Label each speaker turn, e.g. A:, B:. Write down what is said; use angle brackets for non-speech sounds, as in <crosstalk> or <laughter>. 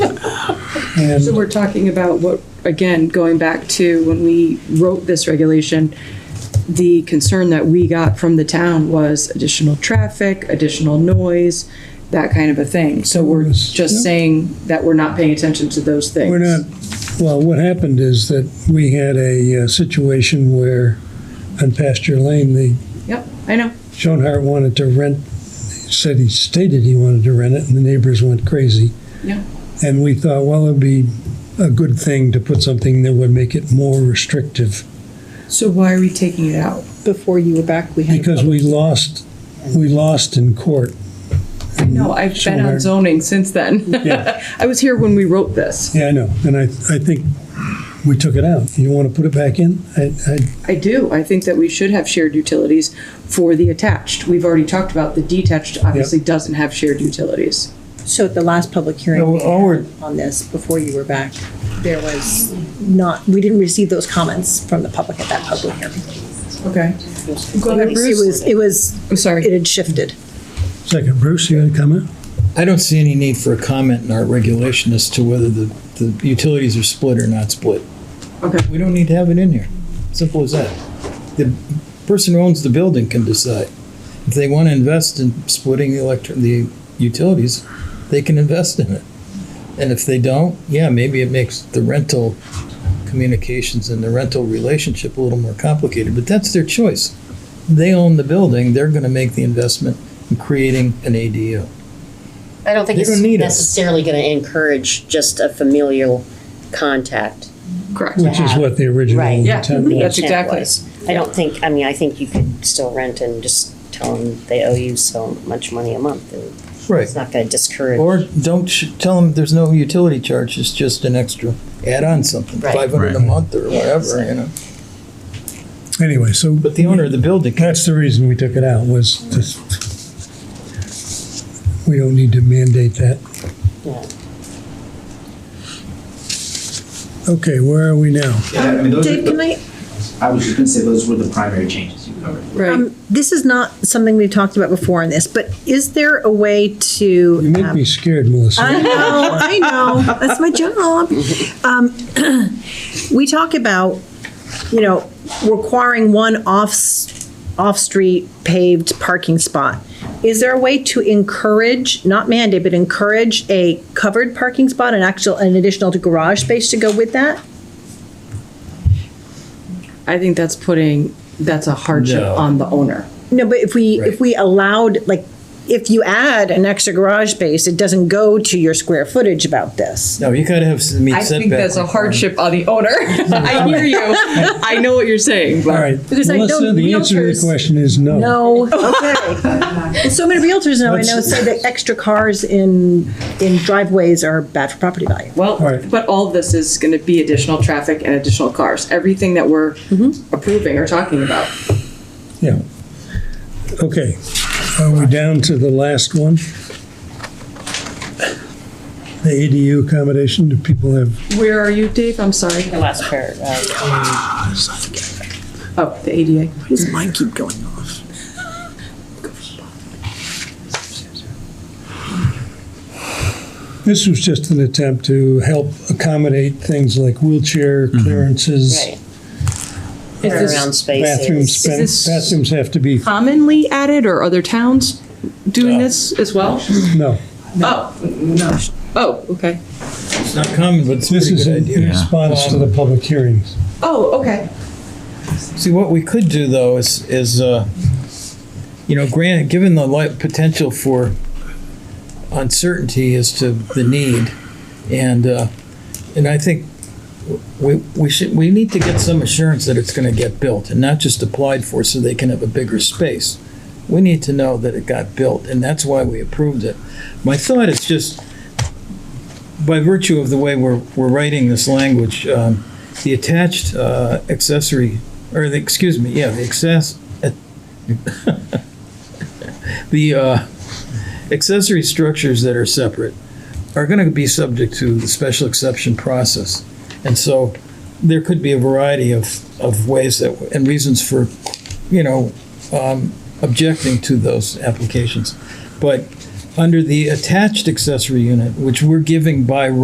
A: And
B: So we're talking about what, again, going back to when we wrote this regulation, the concern that we got from the town was additional traffic, additional noise, that kind of a thing. So we're just saying that we're not paying attention to those things.
A: we're not, well, what happened is that we had a uh, situation where on Pasture Lane, the
B: Yep, I know.
A: Schoenhart wanted to rent, said he stated he wanted to rent it, and the neighbors went crazy.
B: Yeah.
A: And we thought, well, it'd be a good thing to put something that would make it more restrictive,
B: So why are we taking it out?
C: Before you were back, we had. a
A: because we lost, we lost in court.
B: No, I've been on
A: Sure.
B: zoning since then.
A: Yeah.
B: <laughs> I was here when we wrote this.
A: Yeah, I know, and I, I think we took it out. You want to put it back in? I, I,
B: I do. I think that we should have shared utilities for the attached. We've already talked about the detached obviously doesn't have shared utilities.
C: public- So at the last public hearing
A: No,
C: we
A: all we're-
C: had on this, before you were back, there was not, we didn't receive those comments from the public at that public hearing.
B: Okay. Go
C: It
B: ahead,
C: was- it was,
B: Bruce.
C: it was,
B: I'm
C: it
B: sorry.
C: had shifted.
A: second, Bruce, you had a comment?
D: I don't see any need for a comment in our regulation as to whether the, the utilities are split or not split.
B: Okay.
D: We don't need to have it in here. Simple as that. The person who owns the building can decide. If they want to invest in splitting the electric, the utilities, they can invest in it. And if they don't, yeah, maybe it makes the rental communications and the rental relationship a little more complicated, but that's their choice. They own the building, they're going to make the investment in creating an ADU.
E: I don't think
D: You
E: it's
D: don't need it.
E: necessarily going to encourage just a familial contact.
B: Correct.
A: Which is what the original
E: Right.
B: Yeah,
A: intent was.
B: that's
E: intent
B: exactly.
E: was. I don't think, I mean, I think you could still rent and just tell them they owe you so much money a month. and
D: Right.
E: It's not going to discourage.
D: Or don't sh- tell them there's no utility charge, it's just an extra, add on something,
E: Right.
D: five hundred a month or
E: Yeah,
D: whatever,
E: so-
D: you know.
A: Anyway, so
D: But the owner of the building, can-
A: that's the reason we took it out was to, we don't need to mandate that.
E: Yeah.
A: Okay, where are we now?
F: Yeah, I mean, those are
C: Dave,
F: the-
C: can I,
F: I was just gonna say, those were the primary changes you covered.
B: Right.
C: um, this is not something we've talked about before in this, but is there a way to?
A: You make
C: um,
A: me scared, Melissa.
C: I know, I know. That's my job. Um, <clears throat> we talk about, you know, requiring one off, off-street paved parking spot. Is there a way to encourage, not mandate, but encourage a covered parking spot, an actual, an additional garage space to go with that?
B: I think that's putting, that's a hardship
D: No.
B: on the owner.
C: No, but if we, if
D: Right.
C: we allowed, like, if you add an extra garage space, it doesn't go to your square footage about this.
D: no, you gotta have, meet
B: I
D: setback.
B: think that's a hardship on the owner. <laughs> I hear you. I know what you're saying,
A: All
B: but
A: right,
C: Because I
A: Melissa,
C: know
A: the answer to your
C: realtors-
A: question is no.
C: No, okay. So many realtors now, I know,
A: Let's-
C: say that extra cars in, in driveways are bad for property value.
B: Well,
A: Right.
B: but all of this is gonna be additional traffic and additional cars, everything that we're approving or talking about.
A: Yeah. Okay, are we down to the last one? The ADU accommodation, do people have,
B: Where are you, Dave? I'm sorry.
E: The last part, uh,
B: Oh, the ADA.
C: Does mine keep going off?
A: this was just an attempt to help accommodate things like wheelchair
D: Mm-hmm.
A: clearances.
E: right. Around spaces.
A: Bathrooms,
B: Is this-
A: bathrooms have to be,
B: Commonly added or other towns doing this as well?
A: no.
B: Oh, no. Oh, okay.
D: It's not common, but it's a
A: This
D: pretty
A: is
D: good
A: in in
D: idea.
A: response to the public hearings.
B: Oh, okay.
D: See, what we could do though is, is, uh, you know, grant, given the light potential for uncertainty as to the need, and, uh, and I think we, we should, we need to get some assurance that it's gonna get built and not just applied for so they can have a bigger space. We need to know that it got built, and that's why we approved it. My thought is just, by virtue of the way we're, we're writing this language, um, the attached, uh, accessory or the, excuse me, yeah, the access, <laughs> the uh, accessory structures that are separate are going to be subject to the special exception process. And so there could be a variety of, of ways that, and reasons for, you know, um, objecting to those applications. But under the attached accessory unit, which we're giving by